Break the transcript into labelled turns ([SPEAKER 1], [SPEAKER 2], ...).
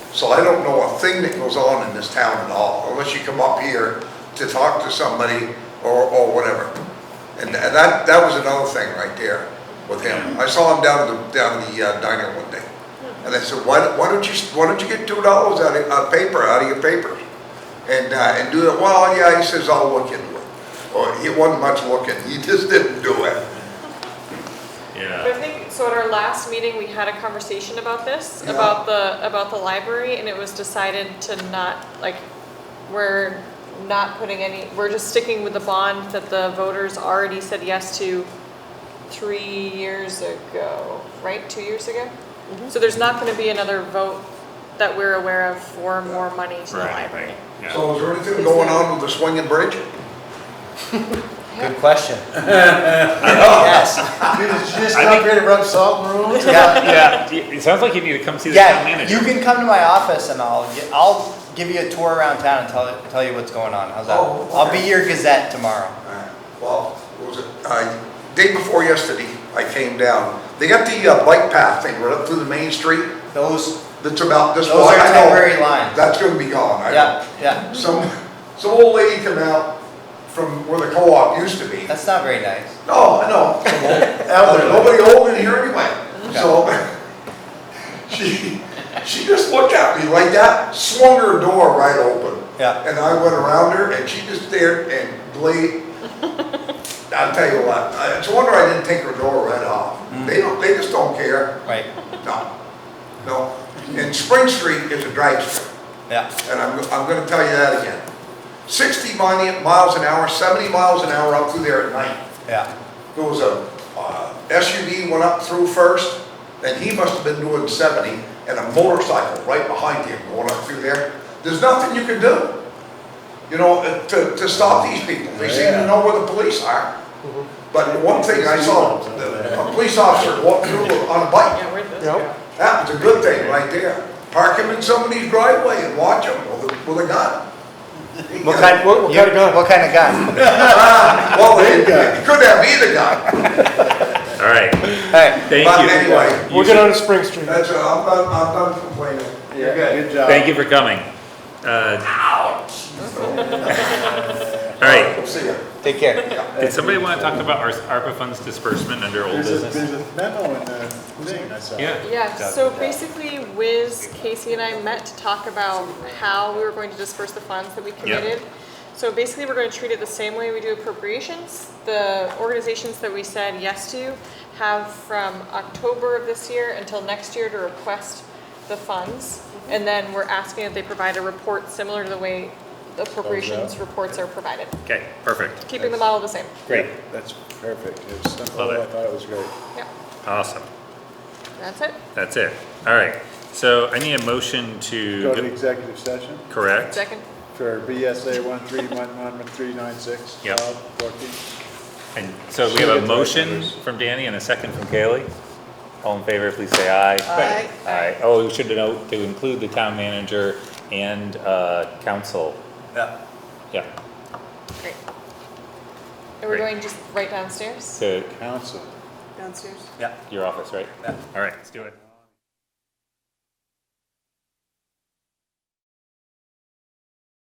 [SPEAKER 1] So I don't know a thing that goes on in this town at all, unless you come up here to talk to somebody or, or whatever. And tha- that, that was another thing right there with him. I saw him down the, down the uh, diner one day. And I said, why, don't- why don't you, why don't you get two dollars out of, out of paper, out of your paper? And, uh, and do it, well, yeah, he says, I'll look into it. Or he wasn't much looking, he just didn't do it.
[SPEAKER 2] I
[SPEAKER 3] Yeah,
[SPEAKER 2] think, so at our last meeting, we had a conversation about this,
[SPEAKER 1] Yeah.
[SPEAKER 2] about the, about the library, and it was decided to not, like, we're not putting any, we're just sticking with the bond that the voters already said yes to three years ago, right, two years ago? So there's not gonna be another vote that we're aware of for more money to the
[SPEAKER 3] right, right,
[SPEAKER 2] library.
[SPEAKER 3] yeah.
[SPEAKER 1] So is there anything going on with the swinging bridge?
[SPEAKER 4] Good question. Yes. You just- you just
[SPEAKER 3] I
[SPEAKER 4] come
[SPEAKER 3] think-
[SPEAKER 4] here to rub salt in the wounds? Yeah.
[SPEAKER 3] Yeah, it sounds like you need to come see the town
[SPEAKER 4] Yeah, you
[SPEAKER 3] manager.
[SPEAKER 4] can come to my office and I'll, gi- I'll give you a tour around town and tell, tell you what's going on. How's that?
[SPEAKER 1] Oh,
[SPEAKER 4] I'll be
[SPEAKER 1] okay.
[SPEAKER 4] your gazette tomorrow.
[SPEAKER 1] Uh, Well, what was it, uh, day before yesterday, I came down. They got the uh, bike path thing right up through the main street
[SPEAKER 4] Those,
[SPEAKER 1] that's about this.
[SPEAKER 4] Those are
[SPEAKER 1] wide. I know
[SPEAKER 4] temporary lines.
[SPEAKER 1] That's gonna be gone. I-
[SPEAKER 4] yeah, yeah.
[SPEAKER 1] Some, some old lady come out from where the co-op used to be.
[SPEAKER 4] That's not very nice.
[SPEAKER 1] No, no, some old- elderly. nobody old in here anyway. So she, she just looked at me like that, swung her door right open.
[SPEAKER 4] Yeah.
[SPEAKER 1] And I went around her and she just stared and blazed. I'll tell you what, I- it's a wonder I didn't take her door right off. They don't, they just don't care.
[SPEAKER 4] Right,
[SPEAKER 1] No, no. And Spring Street is a drag street
[SPEAKER 4] yeah.
[SPEAKER 1] and I'm, I'm gonna tell you that again. Sixty mi- miles an hour, seventy miles an hour up through there at night.
[SPEAKER 4] Yeah,
[SPEAKER 1] There was a uh, SUV went up through first, and he must have been doing seventy, and a motorcycle right behind him going up through there. There's nothing you can do, you know, uh, to, to stop these people. They seem to know where the police are. But one thing I saw, the- a police officer walk through on a bike.
[SPEAKER 2] Yeah, where'd this
[SPEAKER 5] Yep.
[SPEAKER 2] go?
[SPEAKER 1] That was a good thing right there. Park him in somebody's driveway and watch him with a, with a gun.
[SPEAKER 4] What kind,
[SPEAKER 5] What- what kind of gun?
[SPEAKER 4] What kind of gun?
[SPEAKER 1] Well, it it could have either gun,
[SPEAKER 3] All right,
[SPEAKER 4] Hey,
[SPEAKER 3] thank you.
[SPEAKER 1] but anyway,
[SPEAKER 5] We'll get on to Spring Street.
[SPEAKER 1] that's, it. I'm done, I'm done complaining. You're good.
[SPEAKER 3] Thank you for coming. Uh, All right,
[SPEAKER 1] We'll see ya.
[SPEAKER 4] take care.
[SPEAKER 3] did somebody want to talk about our ARPA funds disbursement under old business?
[SPEAKER 6] a memo in the thing I saw.
[SPEAKER 3] Yeah.
[SPEAKER 2] Yeah, so basically Wiz, Casey and I met to talk about how we were going to disperse the funds that we committed. So basically, we're gonna treat it the same way we do appropriations. The organizations that we said yes to have from October of this year until next year to request the funds. And then we're asking that they provide a report similar to the way the appropriations reports are provided,
[SPEAKER 3] Okay, perfect,
[SPEAKER 2] keeping the model the same.
[SPEAKER 3] great,
[SPEAKER 6] That's perfect. It was simple.
[SPEAKER 3] Love it.
[SPEAKER 6] I thought it was great.
[SPEAKER 2] Yeah,
[SPEAKER 3] awesome,
[SPEAKER 2] that's it.
[SPEAKER 3] that's it. All right, so I need a motion to.
[SPEAKER 6] Go to executive session
[SPEAKER 3] Correct,
[SPEAKER 2] Second,
[SPEAKER 6] for BSA one three one one three nine six.
[SPEAKER 3] Yep.
[SPEAKER 6] Fourteen.
[SPEAKER 3] and so we
[SPEAKER 6] Should
[SPEAKER 3] have
[SPEAKER 6] get
[SPEAKER 3] a
[SPEAKER 6] the right
[SPEAKER 3] motion
[SPEAKER 6] numbers.
[SPEAKER 3] from Danny and a second from Kaylee. All in favor, please say aye. Aye. Aye, oh, we should note to include the town manager and, uh, council,
[SPEAKER 4] Yeah.
[SPEAKER 3] yeah,
[SPEAKER 2] great. And
[SPEAKER 3] Great.
[SPEAKER 2] we're going just right downstairs?
[SPEAKER 3] to
[SPEAKER 6] Council.
[SPEAKER 2] Downstairs.
[SPEAKER 4] Yeah.
[SPEAKER 3] your office, right?
[SPEAKER 4] Yeah.
[SPEAKER 3] All right, let's do it.